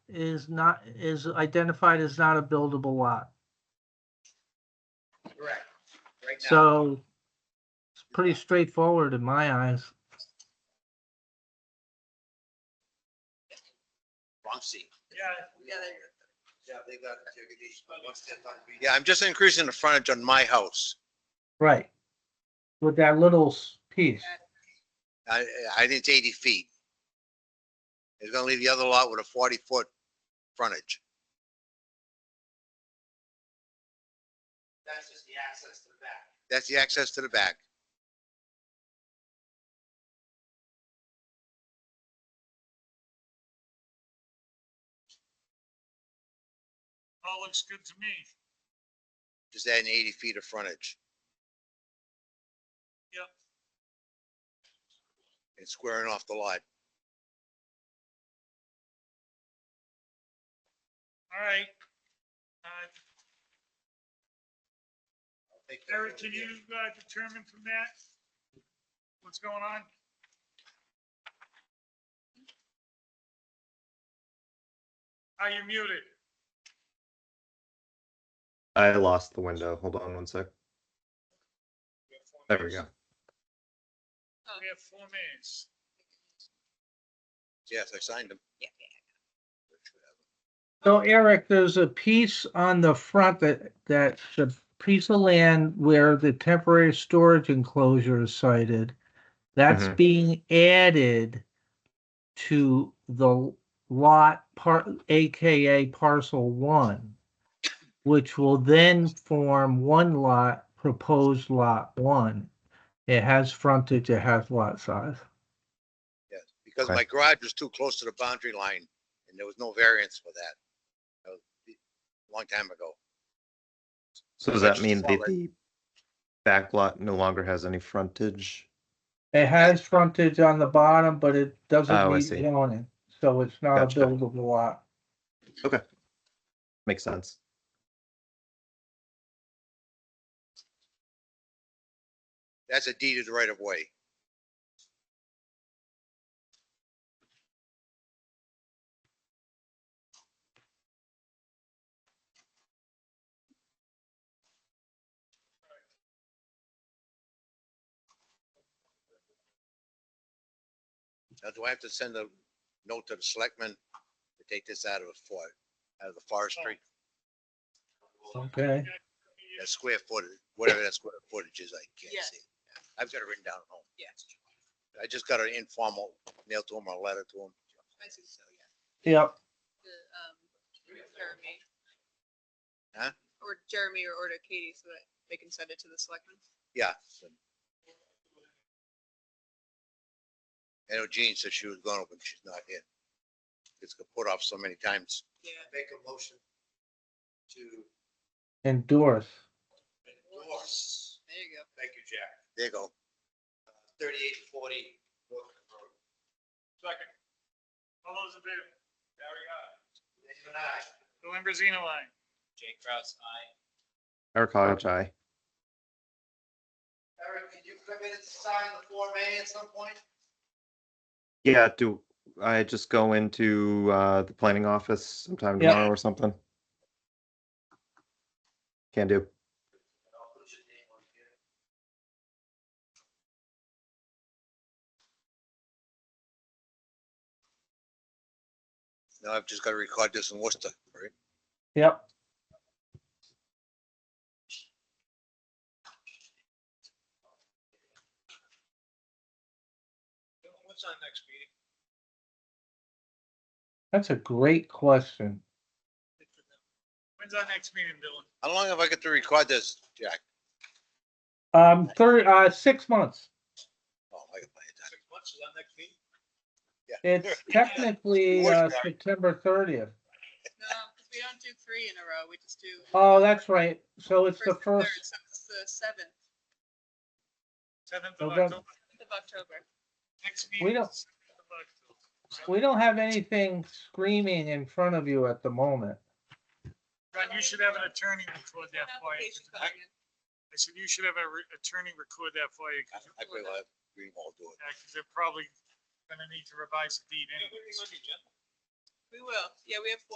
is not, is identified as not a buildable lot. Correct, right now. So it's pretty straightforward in my eyes. Wrong seat. Yeah, they- Yeah, they got it. Yeah, I'm just increasing the frontage on my house. Right. With that little s- piece. I, I think it's eighty feet. It's gonna leave the other lot with a forty foot frontage. That's just the access to the back. That's the access to the back. All looks good to me. Just adding eighty feet of frontage. Yep. And squaring off the lot. All right. Uh, Eric, can you uh, determine from that what's going on? Are you muted? I lost the window. Hold on one sec. There we go. We have four minutes. Yes, I signed them. So Eric, there's a piece on the front that, that the piece of land where the temporary storage enclosure is sited. That's Mhm. being added to the lot part, AKA parcel one, which will then form one lot, proposed lot one. It has frontage, it has lot size. Yes, because Okay. my garage was too close to the boundary line and there was no variance for that. That was a Long time ago. So does that mean that the back lot no longer has any frontage? It has frontage on the bottom, but it Oh, I doesn't see. meet zoning, so it's not a Gotcha. buildable lot. Makes sense. That's a deed of the right of way. Now, do I have to send a note to the selectmen to take this out of the for, out of the forestry, Okay, that square footage, whatever that square footage is, I can't Yes. see. I've got it written down at home. Yeah. I just got an informal mail to him, or a letter to him. I think so, yeah. yep, The, um, Jeremy. Huh? Or Jeremy or order Katie so that they can send it to the selectmen. Yeah. I know Jean said she was gonna, but she's not here. It's got put off so many times. Yeah. Make a motion to endorse. endorse. There you go. Thank you, Jack. There you go. Thirty-eight forty. Second. All those in favor? Gary, aye. David, aye. The Limberzino line. Jay Kraus, aye. Eric Hodge, aye. Eric, can you come in and sign the Form A at some point? Yeah, do I just go into uh, the planning office sometime Yeah. tomorrow or something? Can do. No, I've just gotta record this in Worcester, right? Yep, What's on next meeting? that's a great question. When's our next meeting, Dylan? How long have I got to record this, Jack? Um, third, uh, six months. Oh, I got plenty of time. Six months is our next meeting? It's technically, uh, September thirtieth. No, because we don't do three in a row. We just do. Oh, that's right. So it's the and first, third, So it's the seventh Seventh of November. October. of October. Next We meeting. don't- is 7th of October. we don't have anything screaming in front of you at the moment. John, you should have an attorney record that for you. Application I coming in. I said you should have an attorney record that for you. I 'cause I probably will have Greenwald do it. Yeah, because they're probably gonna need to revise the deed anyways. We will. Yeah, we have